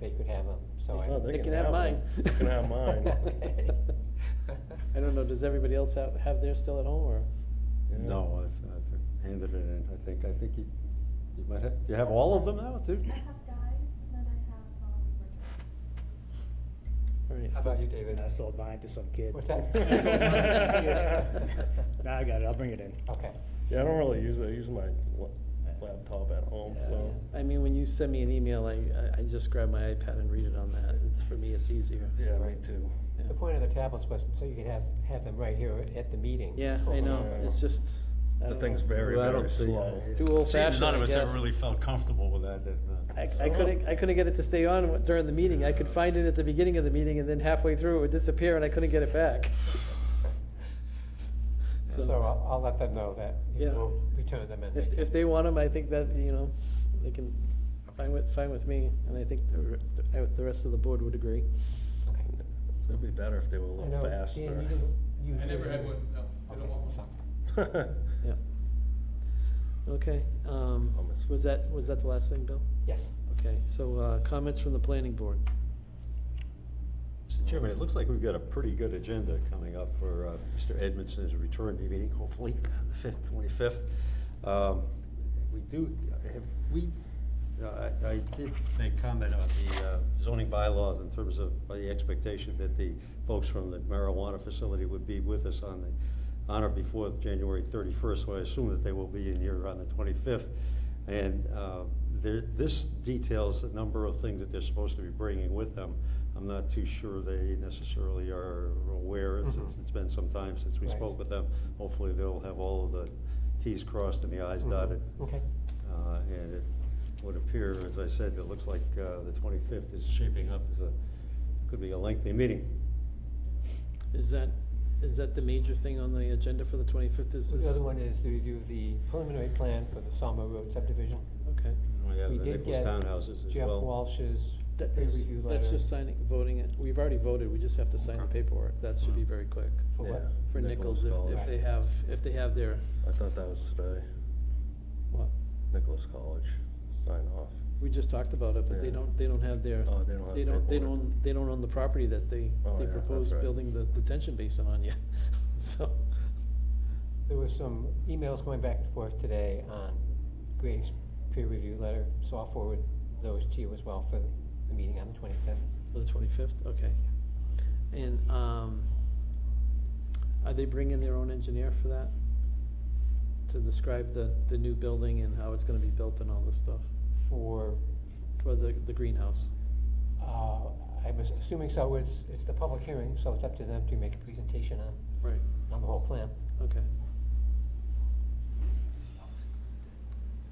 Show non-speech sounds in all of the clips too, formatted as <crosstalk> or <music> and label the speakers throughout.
Speaker 1: they could have them, so I.
Speaker 2: Oh, they
Speaker 1: <laughs>
Speaker 3: They can have mine.
Speaker 2: one. They can have
Speaker 3: <laughs>
Speaker 2: mine.
Speaker 1: Okay.
Speaker 3: I don't know, does everybody else have, have theirs still at home, or?
Speaker 2: Yeah.
Speaker 4: No, I've, I've handed it in, I think, I think you, you might have, you have all of them now, too?
Speaker 5: I have guys, and then I have, um, Richard.
Speaker 3: all right,
Speaker 1: How
Speaker 3: so-
Speaker 1: about you, David?
Speaker 6: I sold mine to some kid.
Speaker 1: What's that?
Speaker 6: I sold mine to some
Speaker 1: <laughs>
Speaker 6: kid. Nah, I got it, I'll bring it in.
Speaker 1: Okay.
Speaker 2: Yeah, I don't really use it, I use my la- laptop at home, so.
Speaker 3: I mean, when you send me an email, I, I- I just grab my iPad and read it on that, it's, for me, it's easier.
Speaker 2: Yeah, me too.
Speaker 3: Yeah.
Speaker 1: The point of the tablets was so you could have, have them right here at the meeting.
Speaker 3: Yeah, I know, it's just. I
Speaker 2: The
Speaker 3: don't
Speaker 2: thing's
Speaker 3: know.
Speaker 2: very,
Speaker 4: Well, I don't
Speaker 2: very
Speaker 4: think-
Speaker 2: slow.
Speaker 4: I-
Speaker 3: Too
Speaker 4: it
Speaker 3: old
Speaker 4: seems
Speaker 3: fashioned,
Speaker 4: None
Speaker 3: I
Speaker 4: of us ever
Speaker 3: guess.
Speaker 4: really felt comfortable with that, did
Speaker 3: I, I couldn't, I couldn't get it to stay on during the meeting, I could find it at the beginning of the meeting, and then halfway through, it would disappear, and I couldn't get it back.
Speaker 1: <laughs> So I'll, I'll let them know that you
Speaker 3: Yeah.
Speaker 1: will return them and.
Speaker 3: If,
Speaker 1: can-
Speaker 3: if they want them, I think that, you know, they can, fine with, fine with me, and I think the, re- I- the rest of the board would agree,
Speaker 1: Okay.
Speaker 2: It'd be better if they were a
Speaker 1: I know,
Speaker 2: little
Speaker 1: Dan,
Speaker 2: faster.
Speaker 1: you didn't use
Speaker 7: I never
Speaker 1: yours,
Speaker 7: had
Speaker 1: did you?
Speaker 7: one, no, I don't
Speaker 1: Okay,
Speaker 7: want one.
Speaker 1: so-
Speaker 2: <laughs>
Speaker 3: yeah. Okay, um,
Speaker 2: Almost.
Speaker 3: was that, was that the last thing, Bill?
Speaker 1: Yes.
Speaker 3: Okay, so, uh, comments from the planning board.
Speaker 4: Mr. Chairman, it looks like we've got a pretty good agenda coming up for uh, Mr. Edmondson's return to meeting, hopefully, on the fifth, twenty-fifth. Um, We do, have, we, uh, I I did make comment on the uh, zoning bylaws in terms of uh, the expectation that the folks from the marijuana facility would be with us on the, on or before January thirty-first, so I assume that they will be in here on the twenty-fifth. And uh, there, this details a number of things that they're supposed to be bringing with them. I'm not too sure they necessarily are aware, It's- it's-
Speaker 1: Mhm.
Speaker 4: it's been some time since we
Speaker 1: Right.
Speaker 4: spoke with them. Hopefully, they'll have all of the Ts crossed and the Is
Speaker 1: Mhm.
Speaker 4: dotted.
Speaker 1: Okay.
Speaker 4: Uh, And it would appear, as I said, it looks like uh, the 25th is shaping up as a, could be a lengthy meeting.
Speaker 3: Is that, is that the major thing on the agenda for the twenty-fifth, is this?
Speaker 1: The other one is the review of the preliminary plan for the Salmo Road subdivision.
Speaker 3: Okay.
Speaker 4: We have
Speaker 1: We
Speaker 4: the
Speaker 1: did
Speaker 4: Nichols
Speaker 1: get
Speaker 4: townhouses as
Speaker 1: Jeff
Speaker 4: well.
Speaker 1: Walsh's
Speaker 3: That is-
Speaker 1: pre-review letter.
Speaker 3: That's just signing, voting it, we've already voted, we just have to sign the
Speaker 4: Okay.
Speaker 3: paperwork, that should be very quick.
Speaker 1: For what?
Speaker 2: Yeah.
Speaker 3: For
Speaker 4: Nichols
Speaker 3: Nichols, if,
Speaker 4: called.
Speaker 3: if they have, if they have their,
Speaker 2: I thought that was today,
Speaker 3: what,
Speaker 2: Nicholas College, sign off.
Speaker 3: we just talked about it, but they
Speaker 2: Yeah.
Speaker 3: don't, they don't have their,
Speaker 2: Oh, they don't have
Speaker 3: they don't, they
Speaker 2: paperwork.
Speaker 3: don't, they don't own the property that they,
Speaker 2: Oh,
Speaker 3: they
Speaker 2: yeah, that's
Speaker 3: proposed
Speaker 2: right.
Speaker 3: building the detention basin on yet, <laughs> so.
Speaker 1: There was some emails going back and forth today on Graves' peer review letter, so I'll forward those to you as well for the meeting on the twenty-fifth.
Speaker 3: For the twenty-fifth, okay. And, um, are they bringing their own engineer for that? To describe the, the new building and how it's gonna be built and all this stuff,
Speaker 1: For,
Speaker 3: for the, the greenhouse?
Speaker 1: uh, I was assuming so, it's, it's the public hearing, so it's up to them to make a presentation on,
Speaker 3: Right.
Speaker 1: on the whole plan.
Speaker 3: Okay.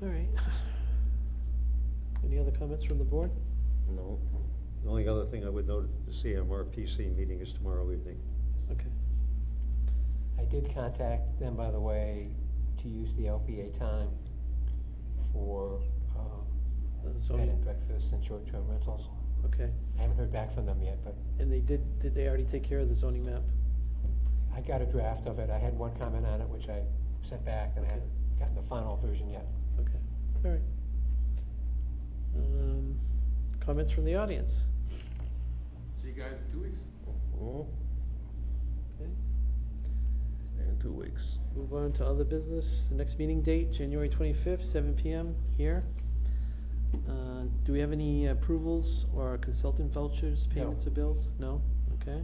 Speaker 3: All right. <laughs> Any other comments from the board?
Speaker 2: No,
Speaker 4: The only other thing I would note, the CMRPC meeting is tomorrow evening.
Speaker 3: Okay,
Speaker 1: I did contact them, by the way, to use the LPA time for, um,
Speaker 3: Uh, so,
Speaker 1: bed and breakfast and short-term rentals.
Speaker 3: okay.
Speaker 1: I haven't heard back from them yet, but
Speaker 3: And they did, did they already take care of the zoning map?
Speaker 1: I got a draft of it, I had one comment on it, which I sent back, and I haven't gotten the final version yet.
Speaker 3: Okay, all right. Um, Comments from the audience?
Speaker 7: See you guys in two weeks.
Speaker 2: Mhm.
Speaker 3: Okay.
Speaker 2: in two weeks.
Speaker 3: Move on to other business. The next meeting date, January twenty-fifth, seven PM here. Uh, Do we have any approvals or consultant vouchers, payments of bills? No? Okay.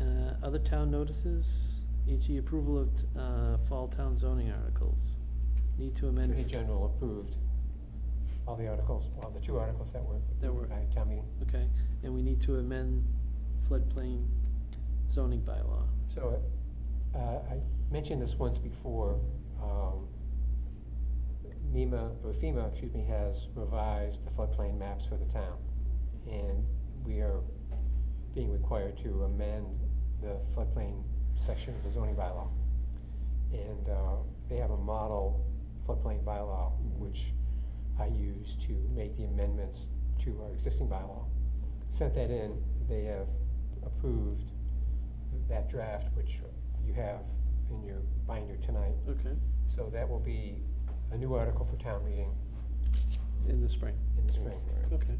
Speaker 3: Uh, Other town notices, E.g. approval of uh, fall town zoning articles. Need to amend.
Speaker 1: Attorney General approved all the articles, well, the two articles that were
Speaker 3: That were-
Speaker 1: approved by town meeting.
Speaker 3: Okay, and we need to amend floodplain zoning bylaw.
Speaker 1: So, uh, I mentioned this once before, um, NEMA, or FEMA, excuse me, has revised the floodplain maps for the town. And we are being required to amend the floodplain section of the zoning bylaw. And, uh, they have a model floodplain bylaw, which I use to make the amendments to our existing bylaw. Sent that in, they have approved that draft, which you have in your binder tonight.
Speaker 3: Okay,
Speaker 1: So that will be a new article for town meeting
Speaker 3: in the spring,
Speaker 1: in the spring.
Speaker 3: okay.